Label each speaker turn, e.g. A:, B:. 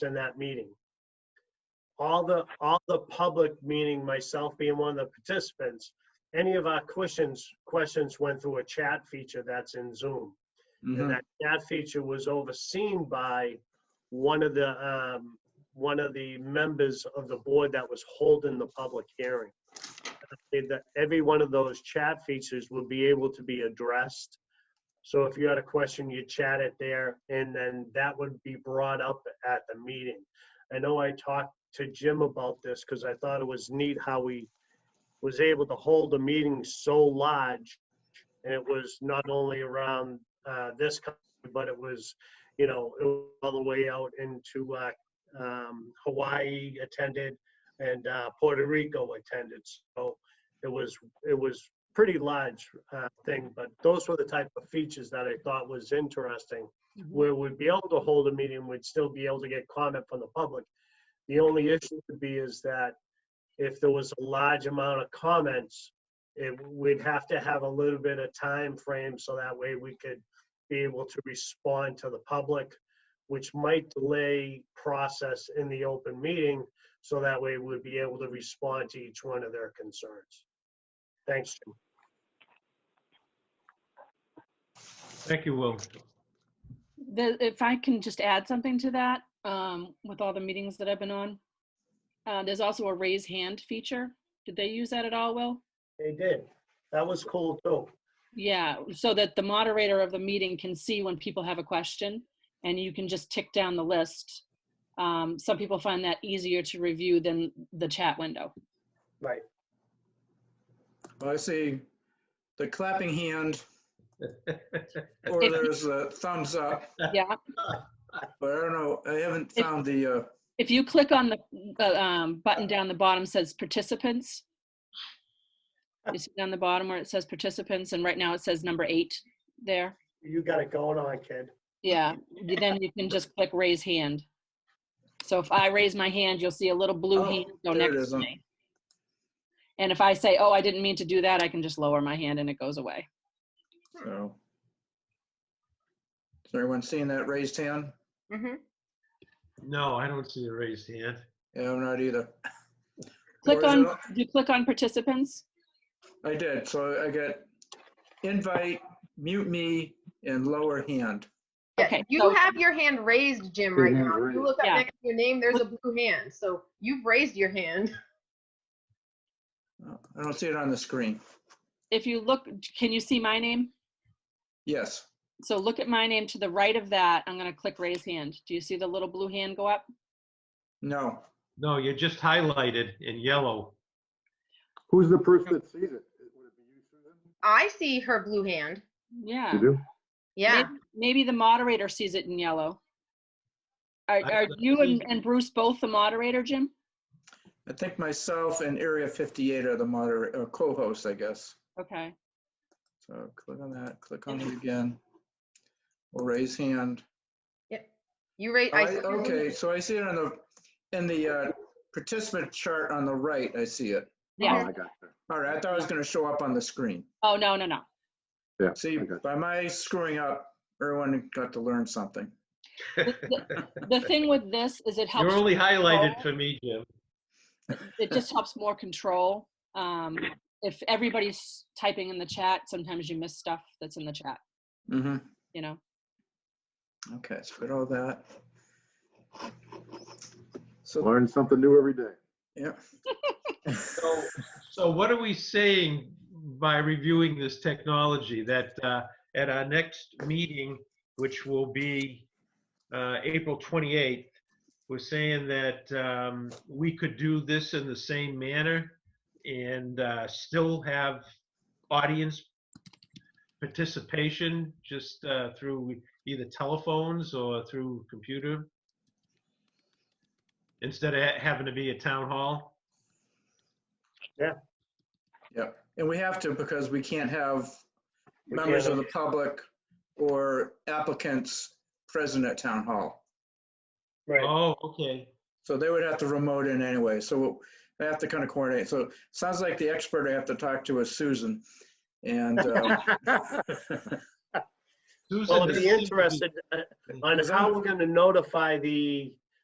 A: in that meeting. All the, all the public, meaning myself being one of the participants, any of our questions, questions went through a chat feature that's in Zoom. And
B: Mhm.
A: that, that feature was overseen by one of the, um, one of the members of the board that was holding the public hearing. And That every one of those chat features will be able to be addressed. So if you had a question, you chat it there, and then that would be brought up at the meeting. I know I talked to Jim about this, because I thought it was neat how we was able to hold a meeting so large. And it was not only around uh, this country, but it was, you know, it was all the way out into uh, um, Hawaii attended and uh, Puerto Rico attended. So it was it was pretty large uh, thing, but those were the type of features that I thought was interesting, where we'd be able to hold a meeting, we'd still be able to get comment from the public. The only issue would be is that if there was a large amount of comments, it, we'd have to have a little bit of time frame so that way we could be able to respond to the public, which might delay process in the open meeting, so that way we'd be able to respond to each one of their concerns. Thanks, Jim.
C: Thank you, Will.
D: The, if I can just add something to that, um, with all the meetings that I've been on, uh, there's also a raise hand feature. Did they use that at all, Will?
A: They did. That was cool too.
D: Yeah, so that the moderator of the meeting can see when people have a question and you can just tick down the list. Um, some people find that easier to review than the chat window.
A: Right.
B: Well, I see the clapping hand, or there's a thumbs up,
D: Yeah,
B: but I don't know, I haven't found the, uh,
D: if you click on the, the um, button down the bottom says participants. You see down the bottom where it says participants and right now it says number eight there.
A: You got it going on, kid.
D: Yeah, you- then you can just click raise hand. So if I raise my hand, you'll see a little blue
B: Oh,
D: hand go
B: there it
D: next
B: is,
D: to
B: um.
D: me. And if I say, oh, I didn't mean to do that, I can just lower my hand and it goes away.
B: so. Is everyone seeing that raised hand?
E: Mm-hmm.
C: No, I don't see a raised hand.
B: Yeah, I'm not either.
D: Click
B: Or is
D: on,
B: it all-
D: do you click on participants?
B: I did, so I got invite, mute me, and lower hand.
D: Okay,
E: Yeah, you
D: so-
E: have your hand raised, Jim,
F: Your
E: right
F: hand
E: now. If You
F: raised.
E: look up
D: Yeah.
E: next to your name, there's a blue hand. So you've raised your hand.
B: Oh, I don't see it on the screen.
D: If you look, can you see my name?
B: Yes,
D: So look at my name to the right of that. I'm gonna click raise hand. Do you see the little blue hand go up?
B: no,
C: No, you're just highlighted in yellow.
F: Who's the person that sees it? Would it be you, Susan?
E: I see her blue hand.
D: Yeah.
F: You do?
E: Yeah.
D: Maybe- Maybe the moderator sees it in yellow. Are,
C: I
D: are
C: don't
D: you and
C: see-
D: and Bruce both the moderator, Jim?
B: I think myself and Area 58 are the moderator, co-hosts, I guess.
D: Okay.
B: So click on that, click on it again. We'll raise hand.
E: You raise.
B: I- Okay, so I see it on the, in the uh, participant chart on the right, I see it.
D: Yeah.
F: Oh, I got you.
B: All right, I thought it was gonna show up on the screen.
D: Oh, no, no, no.
F: Yeah.
B: See,
F: I got
B: by my screwing up, everyone got to learn something.
D: The thing with this is it
C: You're
D: helps,
C: only highlighted for me, Jim.
D: it just helps more control. Um, if everybody's typing in the chat, sometimes you miss stuff that's in the chat,
B: Mm-hmm.
D: you know?
B: Okay, so we got all that.
F: you.
B: So,
F: Learn something new every day.
B: yeah.
C: So, so what are we saying by reviewing this technology? That uh, at our next meeting, which will be uh, April 28th, we're saying that um, we could do this in the same manner and uh, still have audience participation just uh, through either telephones or through computer instead of ha- having to be a town hall.
B: Yeah, and we have to because we can't have
A: We
B: members
A: can't-
B: of the public or applicants present at town hall.
A: Right.
C: Oh, okay.
B: So they would have to remote in anyway, so I have to kind of coordinate. So sounds like the expert I have to talk to is Susan. And, uh,
C: Susan
A: Well, I'd
C: does
A: be
C: seem to
A: interested uh, on
B: Is
A: how
B: that-
A: we're gonna notify the